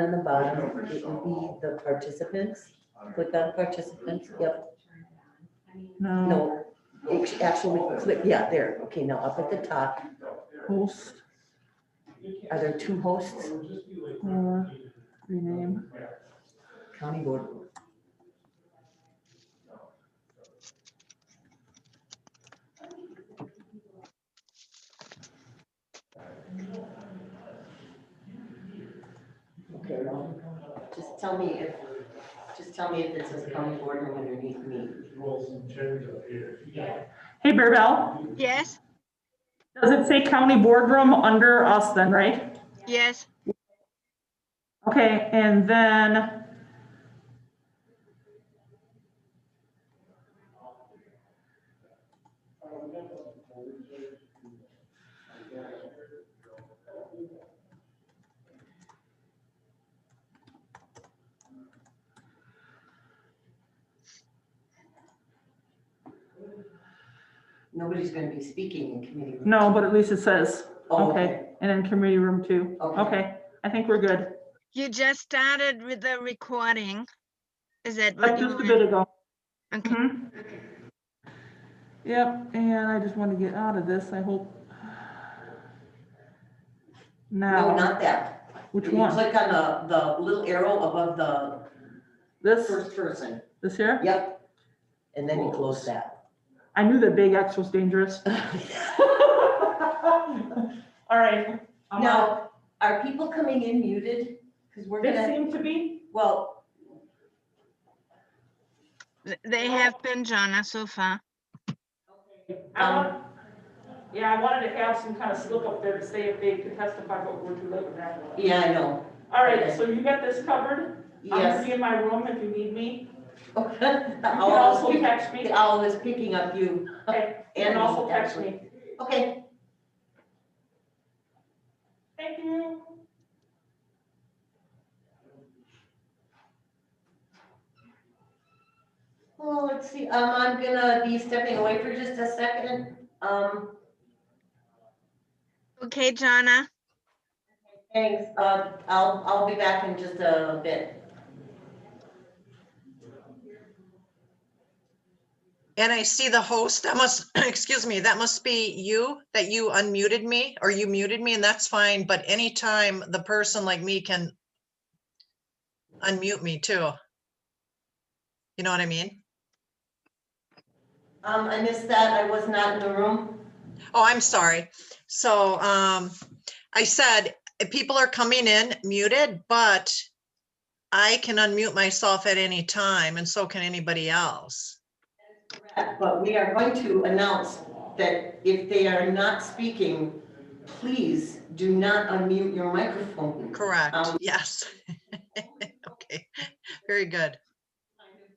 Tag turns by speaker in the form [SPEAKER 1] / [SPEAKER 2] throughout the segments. [SPEAKER 1] on the bottom, it would be the participants, click on participants, yep,
[SPEAKER 2] No,
[SPEAKER 1] no. It's Actually, click, yeah, there, okay, now up at the top,
[SPEAKER 2] host
[SPEAKER 1] are there two hosts?
[SPEAKER 2] or rename.
[SPEAKER 1] County Board. Okay, well,
[SPEAKER 3] Just tell me if, just tell me if it says county board room underneath me.
[SPEAKER 2] Hey, Bearbell,
[SPEAKER 4] Yes,
[SPEAKER 2] does it say county boardroom under us then, right?
[SPEAKER 4] yes,
[SPEAKER 2] Okay, and then.
[SPEAKER 3] Nobody's gonna be speaking in committee. room.
[SPEAKER 2] No, but at least it says,
[SPEAKER 3] Oh,
[SPEAKER 2] okay, and then community room two.
[SPEAKER 3] Okay.
[SPEAKER 2] Okay, I think we're good.
[SPEAKER 4] you just started with the recording. Is that
[SPEAKER 2] Like
[SPEAKER 4] what you
[SPEAKER 2] just a
[SPEAKER 4] want?
[SPEAKER 2] bit ago.
[SPEAKER 4] Okay.
[SPEAKER 2] Mhm. Yep, and I just want to get out of this, I hope.
[SPEAKER 3] No,
[SPEAKER 2] Now,
[SPEAKER 3] not that.
[SPEAKER 2] which
[SPEAKER 3] If you
[SPEAKER 2] one?
[SPEAKER 3] Click on the, the little arrow above the
[SPEAKER 2] This,
[SPEAKER 3] first person.
[SPEAKER 2] this here?
[SPEAKER 3] Yep.
[SPEAKER 1] and then you close that.
[SPEAKER 2] I knew that big X was dangerous. All right. Um, I'm out.
[SPEAKER 3] Now, are people coming in muted? Because we're
[SPEAKER 2] They
[SPEAKER 3] gonna,
[SPEAKER 2] seem to be,
[SPEAKER 3] well,
[SPEAKER 4] Th- They have been, Jonna, so far.
[SPEAKER 2] I
[SPEAKER 3] Um,
[SPEAKER 2] want, yeah, I wanted to have some kind of slip up there to say if they could testify, but we're too late with that. one.
[SPEAKER 3] yeah, I know.
[SPEAKER 2] All right, so you got this covered. I'm gonna be in my room if you need me.
[SPEAKER 3] The
[SPEAKER 2] You can
[SPEAKER 3] owl is
[SPEAKER 2] also
[SPEAKER 3] pick-
[SPEAKER 2] text me,
[SPEAKER 3] the owl is picking up you.
[SPEAKER 2] Okay, you can
[SPEAKER 3] And
[SPEAKER 2] also
[SPEAKER 3] me,
[SPEAKER 2] text
[SPEAKER 3] actually.
[SPEAKER 2] me.
[SPEAKER 3] Okay,
[SPEAKER 2] Thank you.
[SPEAKER 3] well, let's see, um, I'm gonna be stepping away for just a second. Um,
[SPEAKER 4] Okay, Jonna?
[SPEAKER 3] thanks, uh, I'll, I'll be back in just a bit.
[SPEAKER 5] And I see the host, that must, excuse me, that must be you, that you unmuted me or you muted me and that's fine, but anytime the person like me can unmute me too. You know what I mean?
[SPEAKER 3] Um, I missed that, I was not in the room.
[SPEAKER 5] Oh, I'm sorry. So um, I said, if people are coming in muted, but I can unmute myself at any time and so can anybody else.
[SPEAKER 3] But we are going to announce that if they are not speaking, please do not unmute your microphone.
[SPEAKER 5] Correct,
[SPEAKER 3] Um,
[SPEAKER 5] yes. Okay, very good.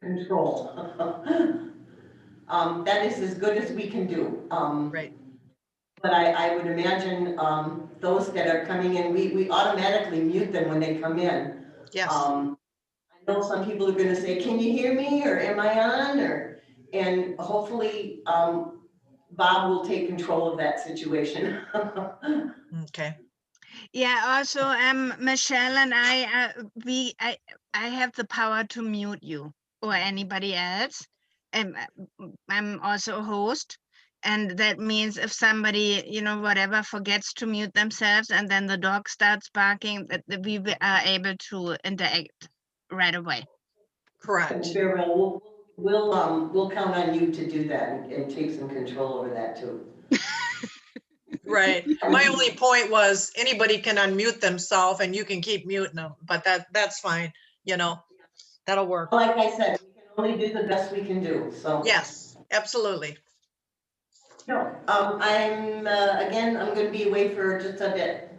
[SPEAKER 3] Control. Um, that is as good as we can do. Um,
[SPEAKER 5] Right.
[SPEAKER 3] But I, I would imagine, um, those that are coming in, we, we automatically mute them when they come in.
[SPEAKER 5] Yes.
[SPEAKER 3] Um, I know some people are gonna say, can you hear me, or am I on, or, and hopefully, um, Bob will take control of that situation.
[SPEAKER 5] Okay,
[SPEAKER 4] Yeah, also, um, Michelle and I, uh, we, I, I have the power to mute you or anybody else. And uh, I'm also a host. And that means if somebody, you know, whatever, forgets to mute themselves and then the dog starts barking, that that we wi- are able to interact right away.
[SPEAKER 5] correct.
[SPEAKER 3] And Cheryl, we'll, we'll, um, we'll count on you to do that and- and take some control over that too.
[SPEAKER 5] Right. My only point was anybody can unmute themselves and you can keep muting them, but that, that's fine, you know, that'll work.
[SPEAKER 3] Like I said, we can only do the best we can do, so.
[SPEAKER 5] Yes, absolutely.
[SPEAKER 3] No, um, I'm, uh, again, I'm gonna be away for just a bit.